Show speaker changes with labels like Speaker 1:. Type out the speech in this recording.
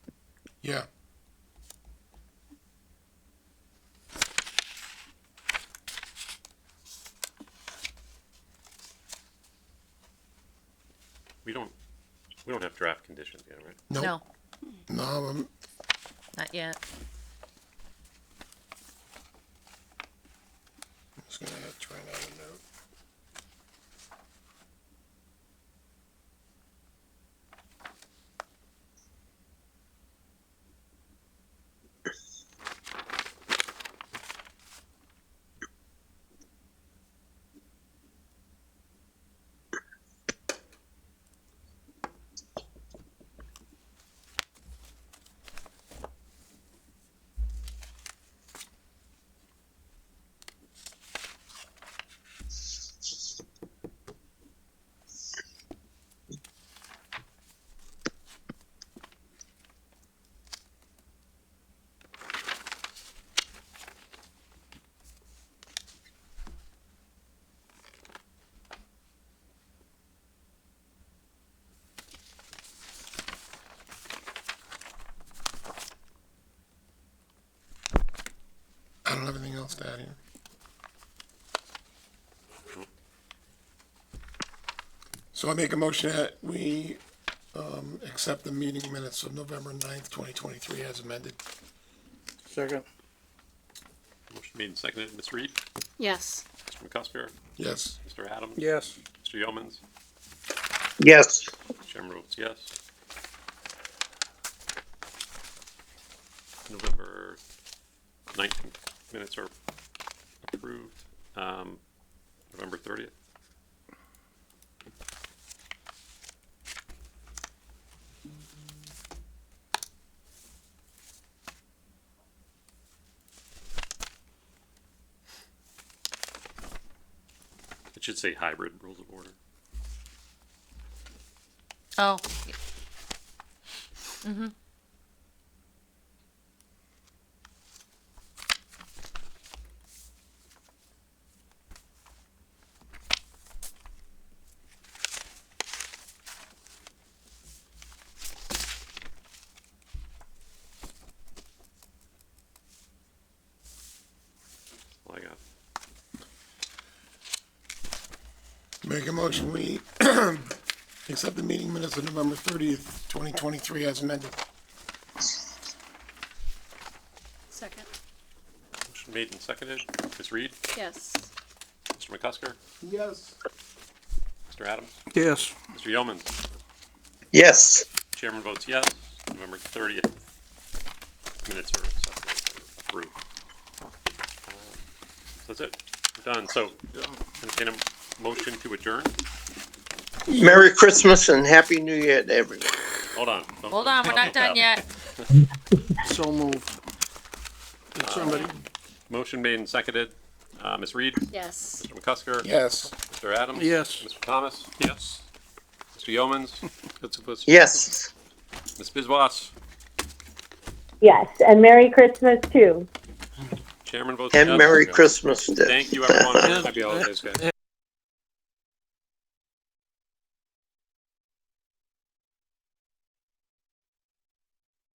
Speaker 1: Yeah.
Speaker 2: We don't, we don't have draft conditions yet, right?
Speaker 1: Nope.
Speaker 3: No,
Speaker 1: No, um,
Speaker 3: not yet.
Speaker 1: I'm just gonna try another note. I don't have anything else to add here. So I make a motion that we, um, accept the meeting minutes of November ninth, twenty twenty-three as amended.
Speaker 4: Second.
Speaker 2: Motion made and seconded. Ms. Reed,
Speaker 5: Yes.
Speaker 2: Mr. McCusker,
Speaker 1: Yes,
Speaker 2: Mr. Adams,
Speaker 4: Yes.
Speaker 2: Mr. Yeomans,
Speaker 4: Yes.
Speaker 2: Chairman votes yes. November nineteenth minutes are approved. Um, November thirtieth, it should say hybrid rules of order.
Speaker 3: Oh,
Speaker 2: All I got.
Speaker 1: make a motion, we accept the meeting minutes of November thirtieth, twenty twenty-three as amended.
Speaker 5: Second.
Speaker 2: Motion made and seconded. Ms. Reed,
Speaker 5: Yes.
Speaker 2: Mr. McCusker,
Speaker 1: Yes.
Speaker 2: Mr. Adams,
Speaker 4: Yes.
Speaker 2: Mr. Yeomans.
Speaker 4: Yes.
Speaker 2: Chairman votes yes. November thirtieth minutes are accepted, approved. Um, That's it. We're done. So entertain a motion to adjourn.
Speaker 4: Merry Christmas and Happy New Year to everyone.
Speaker 2: Hold on. Don't-
Speaker 3: hold on, we're
Speaker 2: don't
Speaker 3: not
Speaker 2: look
Speaker 3: done
Speaker 2: up.
Speaker 3: yet.
Speaker 4: So moved. Somebody.
Speaker 2: Motion made and seconded. Uh, Ms. Reed,
Speaker 5: Yes.
Speaker 2: Mr. McCusker.
Speaker 1: Yes.
Speaker 2: Mr. Adams.
Speaker 4: Yes.
Speaker 2: Mr. Thomas. Yes. Mr. Yeomans. Mr.
Speaker 4: Yes.
Speaker 2: Ms. Bizwas.
Speaker 6: Yes, and Merry Christmas too.
Speaker 2: Chairman votes yes.
Speaker 4: And Merry Christmas to.
Speaker 2: Thank you, everyone. Happy holidays, guys.